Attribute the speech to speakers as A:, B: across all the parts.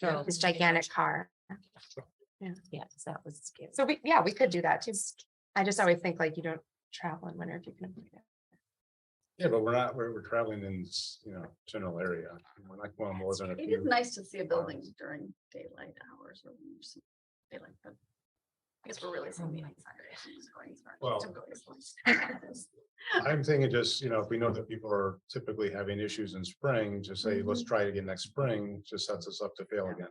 A: drove this gigantic car.
B: Yeah, so that was scary.
A: So we, yeah, we could do that too. I just always think like you don't travel in winter if you can avoid it.
C: Yeah, but we're not, we're, we're traveling in, s- you know, general area. We're not going more than a
D: It is
C: few.
D: nice to see a building
C: hours.
D: during daylight hours or when there's some daylight, but I guess we're really seeing the outside. issues going as far as
C: Well-
D: to go as much.
C: I'm thinking just, you know, if we know that people are typically having issues in spring, just say, let's try it again next spring, just sets us up to fail
A: Yeah.
C: again.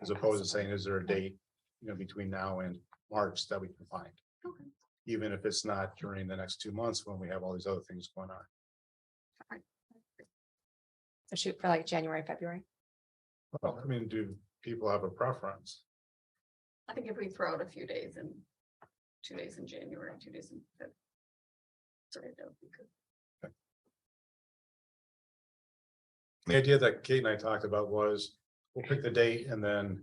C: As opposed to saying, is there a date, you know, between now and March that we can find?
D: Okay.
C: Even if it's not during the next two months when we have all these other things going on.
A: So shoot for like January, February.
C: Well, I mean, do people have a preference?
D: I think if we throw out a few days in, two days in January, two days in. Feb- Sorry, that would be good.
C: The idea that Kate and I talked about was, we'll pick the date and then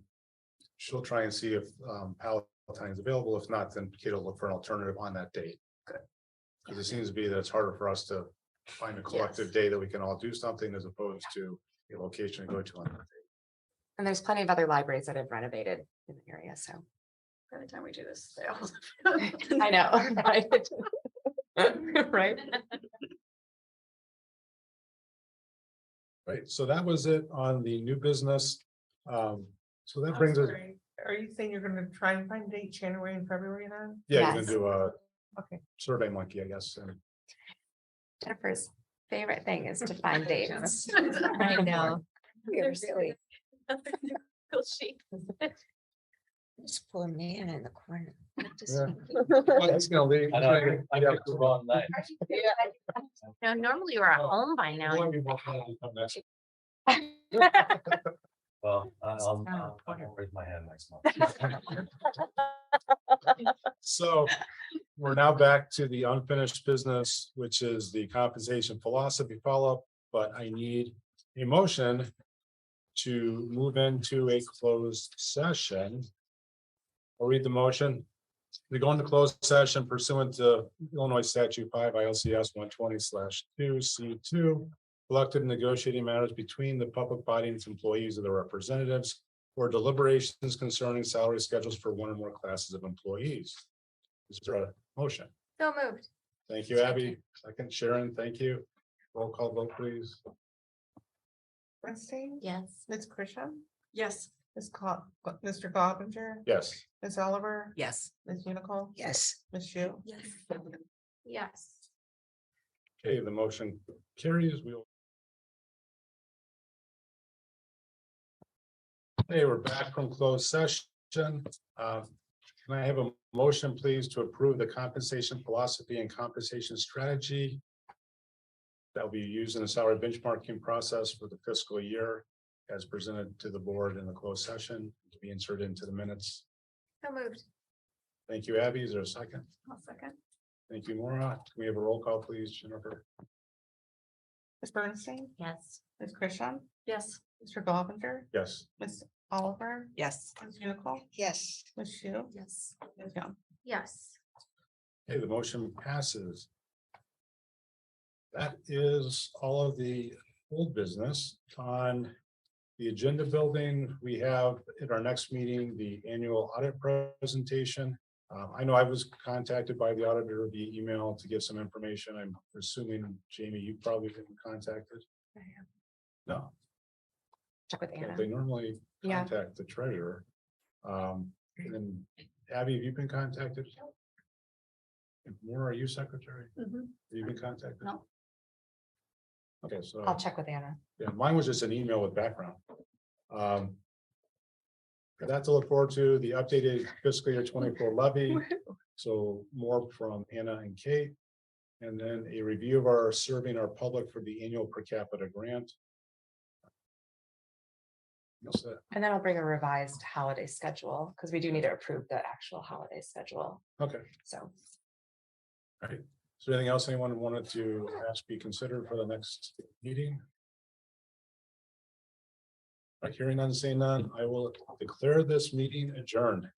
C: she'll try and see if um Palatine's available. If not, then Kate will look for an alternative on that date. Because it seems to be that it's harder for us to find a collective
D: Yes.
C: day that we can all do something as opposed to a location to go to on that day.
A: And there's plenty of other libraries that have renovated in the area, so.
D: By the time we do this.
A: I know. Right?
C: Right, so that was it on the new business. Um, so that brings us,
E: Are you saying you're gonna try and find dates January and February then?
C: yeah, you can
A: Yes.
C: do a
E: Okay.
C: survey monkey, I guess. and-
A: Jennifer's favorite thing is to find dates.
B: I know.
A: You're silly.
B: This poor man in the corner.
C: Yeah. Well, It's gonna leave.
F: I know, I picked- I picked the wrong night.
B: Now, normally we're at
C: Oh,
B: home by now.
F: Well, I-
B: Oh,
F: I'll, I'll,
B: okay.
F: I'll raise my hand next month.
C: So we're now back to the unfinished business, which is the compensation philosophy follow-up, but I need a motion to move into a closed session. I'll read the motion. We go into closed session pursuant to Illinois statute five ILCS one twenty two C two. Collective negotiating matters between the public body and its employees or their representatives or deliberations concerning salary schedules for one or more classes of employees. Is there a motion?
A: So moved.
C: Thank you, Abby. Second, Sharon, thank you. Roll call vote, please.
E: Bernstein?
B: Yes.
E: Ms. Christian?
D: Yes.
E: Ms. Co- Mr. Gottinger?
C: Yes.
E: Ms. Oliver?
B: Yes.
E: Ms. Unical?
B: Yes.
E: Ms. Shu?
D: Yes.
A: Yes.
C: Okay, the motion carries. We'll. Hey, we're back from closed session. Uh, Can I have a motion, please, to approve the compensation philosophy and compensation strategy that will be used in the salary benchmarking process for the fiscal year as presented to the board in the closed session to be inserted into the minutes?
A: So moved.
C: Thank you, Abby. Is there a second?
D: I'll second.
C: Thank you, Maura. Can we have a roll call, please, Jennifer?
E: Ms. Bernstein?
B: Yes.
E: Ms. Christian?
D: Yes.
E: Mr. Gottinger?
C: Yes.
E: Ms. Oliver?
B: Yes.
E: Ms. Unical?
B: Yes.
E: Ms. Shu?
B: Yes.
E: Ms. Young?
A: Yes.
C: Okay, the motion passes. That is all of the old business on the agenda building. We have at our next meeting, the annual audit presentation. Uh, I know I was contacted by the auditor via email to give some information. I'm assuming Jamie, you probably been contacted.
A: I have.
C: No,
A: Check with Anna.
C: they normally
A: Yeah.
C: contact the treasurer. Um, and then Abby, have you been contacted? And Maura, are you secretary?
D: Mhm.
C: Have you been contacted?
D: No.
C: Okay, so.
A: I'll check with Anna.
C: Yeah, mine was just an email with background. Um. got That to look forward to, the updated fiscal year twenty-four levy, so more from Anna and Kate. And then a review of our serving our public for the annual per capita grant. That's it.
A: And then I'll bring a revised holiday schedule because we do need to approve the actual holiday schedule.
C: Okay,
A: So
C: is there anything else anyone wanted to ask be considered for the next meeting? All right, Hearing none, seeing none, I will declare this meeting adjourned.